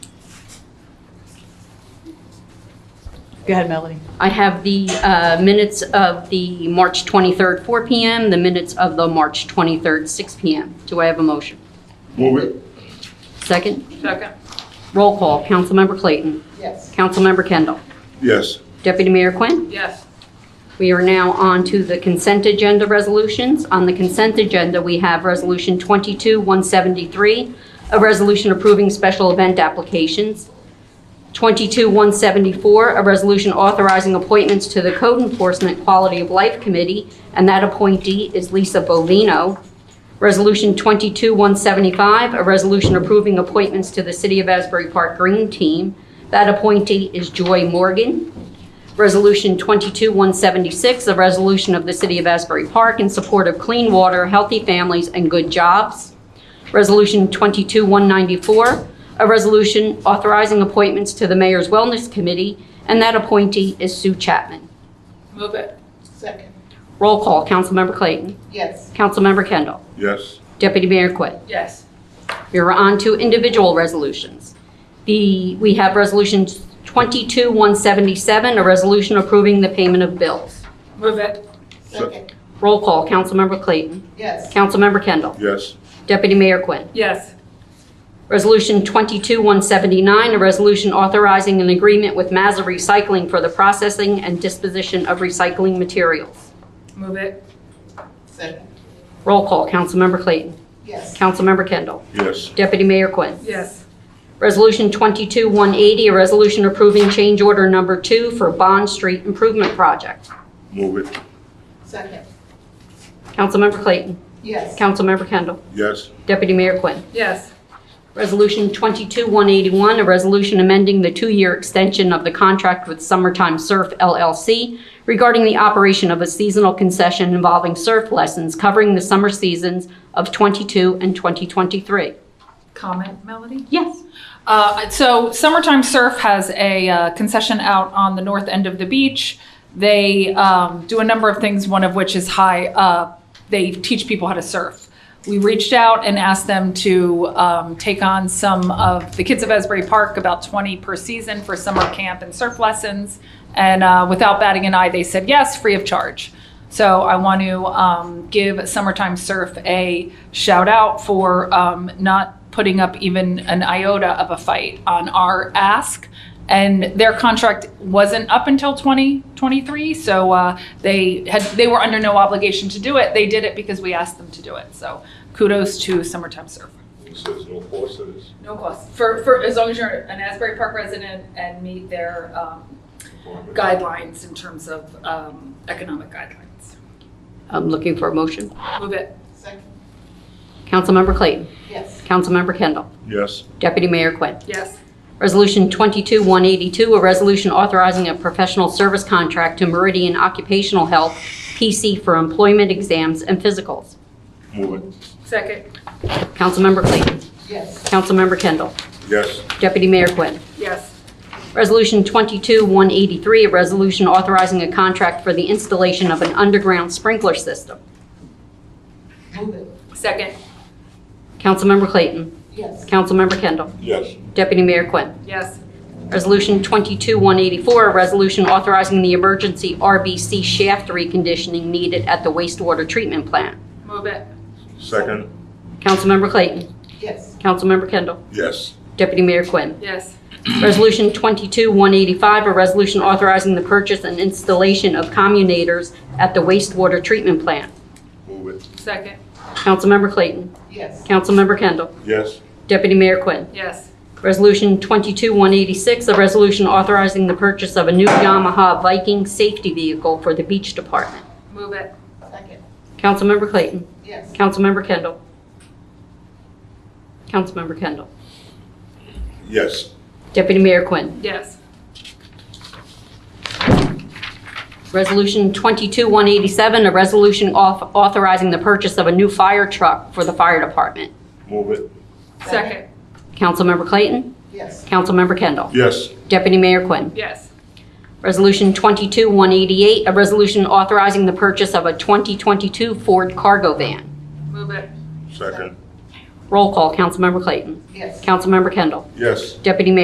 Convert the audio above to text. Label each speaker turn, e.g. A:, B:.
A: Go ahead, Melody.
B: I have the uh, minutes of the March 23rd, 4 PM, the minutes of the March 23rd, 6 PM. Do I have a motion?
C: Move it.
B: Second?
D: Second.
B: Roll call. Councilmember Clayton.
D: Yes.
B: Councilmember Kendall.
C: Yes.
B: Deputy Mayor Quinn.
D: Yes.
B: We are now on to the consent agenda resolutions. On the consent agenda, we have Resolution 22-173, a resolution approving special event applications. 22-174, a resolution authorizing appointments to the Code Enforcement Quality of Life Committee, and that appointee is Lisa Bolino. Resolution 22-175, a resolution approving appointments to the City of Asbury Park Green Team. That appointee is Joy Morgan. Resolution 22-176, a resolution of the City of Asbury Park in support of clean water, healthy families, and good jobs. Resolution 22-194, a resolution authorizing appointments to the Mayor's Wellness Committee, and that appointee is Sue Chapman.
D: Move it.
A: Second.
B: Roll call, Councilmember Clayton.
A: Yes.
B: Councilmember Kendall.
C: Yes.
B: Deputy Mayor Quinn.
D: Yes.
B: We are on to individual resolutions. The, we have Resolution 22-177, a resolution approving the payment of bills.
D: Move it.
C: Second.
B: Roll call, Councilmember Clayton.
A: Yes.
B: Councilmember Kendall.
C: Yes.
B: Deputy Mayor Quinn.
D: Yes.
B: Resolution 22-179, a resolution authorizing an agreement with Mazza Recycling for the processing and disposition of recycling materials.
D: Move it.
A: Second.
B: Roll call, Councilmember Clayton.
A: Yes.
B: Councilmember Kendall.
C: Yes.
B: Deputy Mayor Quinn.
D: Yes.
B: Resolution 22-180, a resolution approving change order number two for Bond Street Improvement Project.
C: Move it.
A: Second.
B: Councilmember Clayton.
A: Yes.
B: Councilmember Kendall.
C: Yes.
B: Deputy Mayor Quinn.
D: Yes.
B: Resolution 22-181, a resolution amending the two-year extension of the contract with Summertime Surf LLC regarding the operation of a seasonal concession involving surf lessons covering the summer seasons of 22 and 2023.
D: Comment, Melody?
B: Yes.
D: Uh, so Summertime Surf has a uh, concession out on the north end of the beach. They um, do a number of things, one of which is high, uh, they teach people how to surf. We reached out and asked them to um, take on some of the kids of Esbury Park, about 20 per season for summer camp and surf lessons. And uh, without batting an eye, they said yes, free of charge. So I want to um, give Summertime Surf a shout out for um, not putting up even an iota of a fight on our ask. And their contract wasn't up until 2023, so uh, they had they were under no obligation to do it. They did it because we asked them to do it. So kudos to Summertime Surf.
C: This is no cost to this.
D: No cost for, for as long as you're an Asbury Park resident and meet their um, guidelines in terms of um, economic guidelines.
B: I'm looking for a motion.
D: Move it.
A: Second.
B: Councilmember Clayton.
A: Yes.
B: Councilmember Kendall.
C: Yes.
B: Deputy Mayor Quinn.
D: Yes.
B: Resolution 22-182, a resolution authorizing a professional service contract to Meridian Occupational Health, PC, for employment exams and physicals.
C: Move it.
D: Second.
B: Councilmember Clayton.
A: Yes.
B: Councilmember Kendall.
C: Yes.
B: Deputy Mayor Quinn.
D: Yes.
B: Resolution 22-183, a resolution authorizing a contract for the installation of an underground sprinkler system.
A: Move it.
D: Second.
B: Councilmember Clayton.
A: Yes.
B: Councilmember Kendall.
C: Yes.
B: Deputy Mayor Quinn.
D: Yes.
B: Resolution 22-184, a resolution authorizing the emergency RBC shaft reconditioning needed at the wastewater treatment plant.
D: Move it.
C: Second.
B: Councilmember Clayton.
A: Yes.
B: Councilmember Kendall.
C: Yes.
B: Deputy Mayor Quinn.
D: Yes.
B: Resolution 22-185, a resolution authorizing the purchase and installation of communators at the wastewater treatment plant.
C: Move it.
D: Second.
B: Councilmember Clayton.
A: Yes.
B: Councilmember Kendall.
C: Yes.
B: Deputy Mayor Quinn.
D: Yes.
B: Resolution 22-186, a resolution authorizing the purchase of a new Yamaha Viking safety vehicle for the beach department.
D: Move it.
A: Second.
B: Councilmember Clayton.
A: Yes.
B: Councilmember Kendall. Councilmember Kendall.
C: Yes.
B: Deputy Mayor Quinn.
D: Yes.
B: Resolution 22-187, a resolution auth- authorizing the purchase of a new fire truck for the fire department.
C: Move it.
D: Second.
B: Councilmember Clayton.
A: Yes.
B: Councilmember Kendall.
C: Yes.
B: Deputy Mayor Quinn.
D: Yes.
B: Resolution 22-188, a resolution authorizing the purchase of a 2022 Ford cargo van.
D: Move it.
C: Second.
B: Roll call, Councilmember Clayton.
A: Yes.
B: Councilmember Kendall.
C: Yes.
B: Deputy Mayor